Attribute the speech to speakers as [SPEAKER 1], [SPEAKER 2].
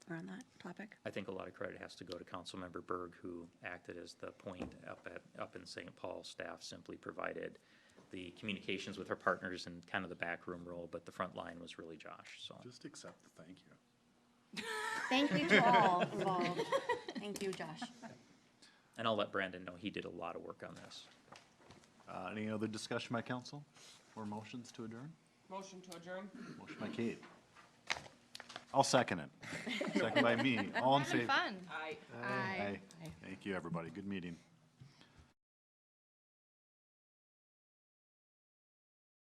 [SPEAKER 1] around that topic?
[SPEAKER 2] I think a lot of credit has to go to Councilmember Berg, who acted as the point up at, up in St. Paul. Staff simply provided the communications with our partners and kind of the backroom role, but the front line was really Josh, so.
[SPEAKER 3] Just accept the thank you.
[SPEAKER 1] Thank you to all involved. Thank you, Josh.
[SPEAKER 2] And I'll let Brandon know he did a lot of work on this.
[SPEAKER 3] Uh, Any other discussion by council or motions to adjourn?
[SPEAKER 4] Motion to adjourn?
[SPEAKER 3] Motion by Kate. I'll second it. Second by me. All in favor?
[SPEAKER 5] Fun.
[SPEAKER 4] Aye.
[SPEAKER 3] Aye. Thank you, everybody. Good meeting.